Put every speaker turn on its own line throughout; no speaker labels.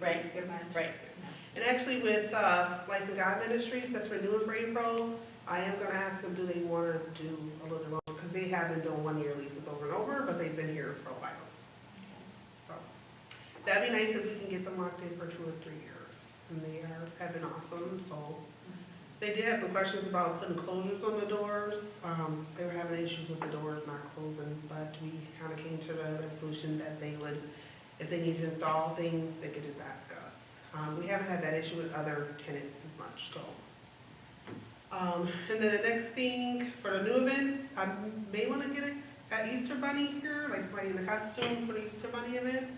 Right,
Thank you so much.
right.
And actually with uh, Life and God Ministries, that's renewing for April, I am gonna ask them, do they wanna do a little bit longer? Because they have been doing one-year leases over and over, but they've been here for a while. So, that'd be nice if we can get them locked in for two or three years. And they are, have been awesome, so. They did have some questions about putting closures on the doors. Um, They were having issues with the doors not closing, but we kind of came to the resolution that they would if they need to install things, they could just ask us. Um, we haven't had that issue with other tenants as much, so. Um, and then the next thing for the new events, I may wanna get a, that Easter bunny here, like somebody in a costume for the Easter bunny event.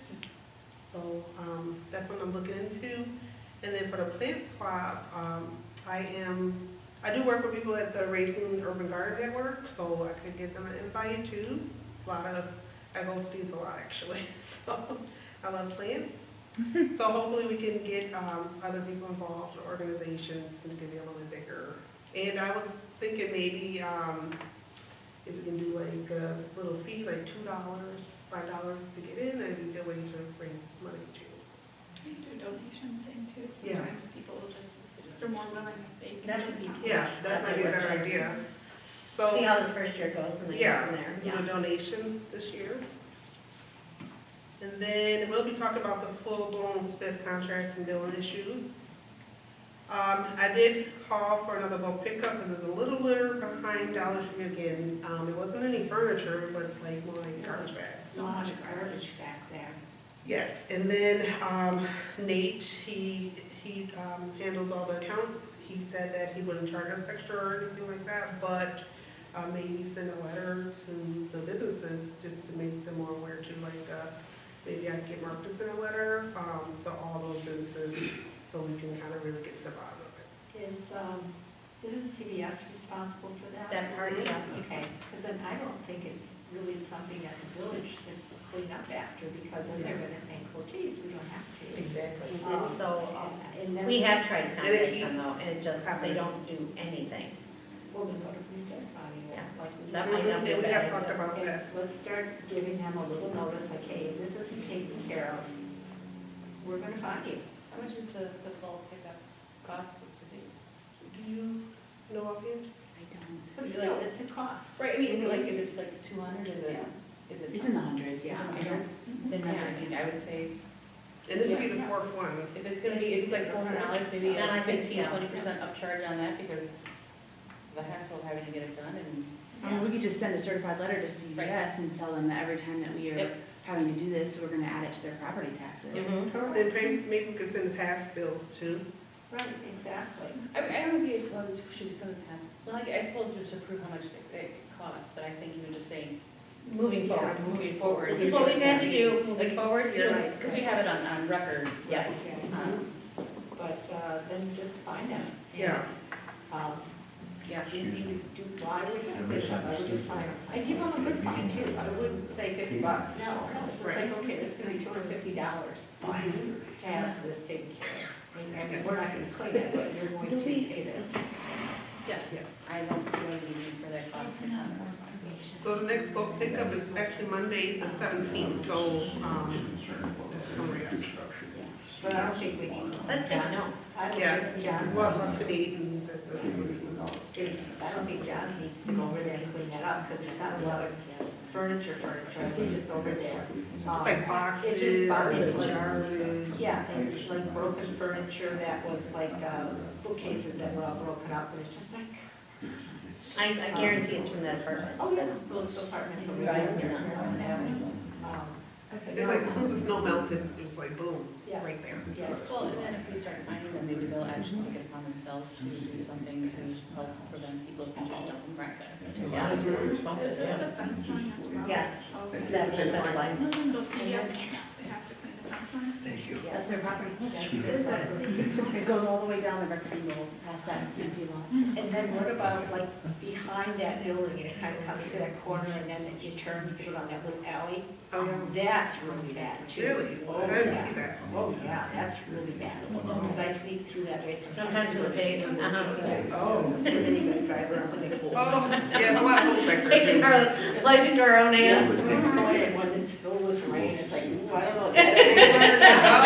So, um, that's what I'm looking into. And then for the plant swap, um, I am, I do work with people at the Racing Urban Garden Network, so I could get them an invite too. A lot of I go to these a lot actually, so I love plants. So hopefully we can get um, other people involved, organizations, and it can be a little bit bigger. And I was thinking maybe um, if we can do like a little fee, like two dollars, five dollars to get in, and be a way to raise money too.
Can you do a donation thing too?
Yeah.
Sometimes people will just, if they're more willing, they can.
That
do
would be
something.
Yeah, that might be a better idea. So.
See how this first year goes and then go
Yeah,
from there.
do a donation this year. And then we'll be talking about the full-blown Smith contract and billing issues. Um, I did call for another bulk pickup because it's a little litter behind Dollar Tree again. Um, it wasn't any furniture, but like more like garbage bags.
A lot of garbage back there.
Yes, and then um, Nate, he, he um, handles all the accounts. He said that he wouldn't charge us extra or anything like that, but uh, maybe send a letter to the businesses just to make them more aware to like, uh, maybe I can get Mark to send a letter um, to all those businesses so we can kind of really get to the bottom of it.
Is, um, isn't CBS responsible for that?
That part, yeah, okay.
Because then I don't think it's really something that the village should clean up after, because then they're gonna think, well, geez, we don't have to.
Exactly.
Um,
Mhm.
And so, um,
And then.
we have tried to
And
contact
it
them though,
keeps
and it just, they
happening.
don't do anything.
We're gonna go to police department,
Yeah.
like. we
That
did.
might not be a
And we
bad idea.
have talked about
And
that.
Let's start giving them a little notice, like, hey, if this isn't taken care of, we're gonna find you.
How much is the, the bulk pickup cost us to do?
Do you know offhand?
I
But still, it's a cost.
Right, I mean, is it like, is it like two hundred, is it,
Yeah.
is it?
It's in the hundreds, yeah.
Is it
I don't-
hundreds? Mm-hmm. Then
Yeah.
I mean, I would say,
And this would be
Yeah.
the fourth one.
if it's gonna be, if it's like four hundred dollars, maybe
Then I
like
think,
fifteen,
yeah.
twenty percent upcharge on that because the hassle of having to get it done and.
I
Um,
mean, we could just send a certified letter to CVS and tell them that every time that we are
Yep.
having to do this, we're gonna add it to their property taxes.
And pay- maybe we could send the past bills too.
Right, exactly.
I, I don't know if you, well, should we send it past, well, I I suppose we should prove how much it, it costs, but I think you were just saying, moving forward, moving forward.
This is what we've had to do, moving forward, you're right.
Because we have it on, on record.
Yeah.
Okay.
Um,
But uh, then just find out.
Yeah.
Um,
Yeah.
Do you do why was it
Excuse me.
fifty I would just find, I give them a good fine too, I wouldn't say fifty bucks, no, no, it's just like, okay, this is gonna be two hundred and fifty dollars. To have this taken care of. I mean, I mean, we're not gonna clean it, but you're going to pay this.
Yes.
I don't see any need for that cost. It's not our responsibility.
So the next book pickup is actually Monday, the seventeenth, so, um, that's coming up.
But I don't think we need to.
That's good to know.
I don't
Yeah.
think John's,
Well, up to date and set this.
is- I don't think John's needs to go over there and clean that up, because there's not a lot of furniture, furniture, I think just over there. Uh,
It's like boxes.
It's just bargain
and
bin.
garbage.
Yeah, and like broken furniture that was like uh, bookcases that were all broken up, and it's just like,
I, I guarantee it's from that apartment.
oh, yeah, those apartments over
Drives me nuts.
there. Um,
It's like, as soon as the snow melted, it was like boom,
Yes.
right there.
Yes.
Well, and then if we start finding them, maybe they'll actually take it upon themselves to do something to help prevent people from just dumping right there.
Yeah.
Is this the fence line as well?
Yes.
Okay.
That's what it's like.
So CBS has to clean the fence line?
Thank you.
That's their property.
Yes, it's like-
It goes all the way down the rectangle, past that empty lot.
And then what about like behind that building, it kind of comes to that corner, and then it turns to go down that little alley?
Oh, yeah.
That's really bad, too.
Really?
Oh,
I didn't
yeah.
see that.
Oh, yeah, that's really bad,
Oh.
because I sneak through that way sometimes.
Sometimes to the pavement, uh-huh.
Oh.
And then you gotta drive around with a
Oh,
pole.
yeah, it's a lot of holes back
Taking
there.
our life
Oh,
into our own hands.
Or the one that's filled with rain, it's like, ooh, I don't know.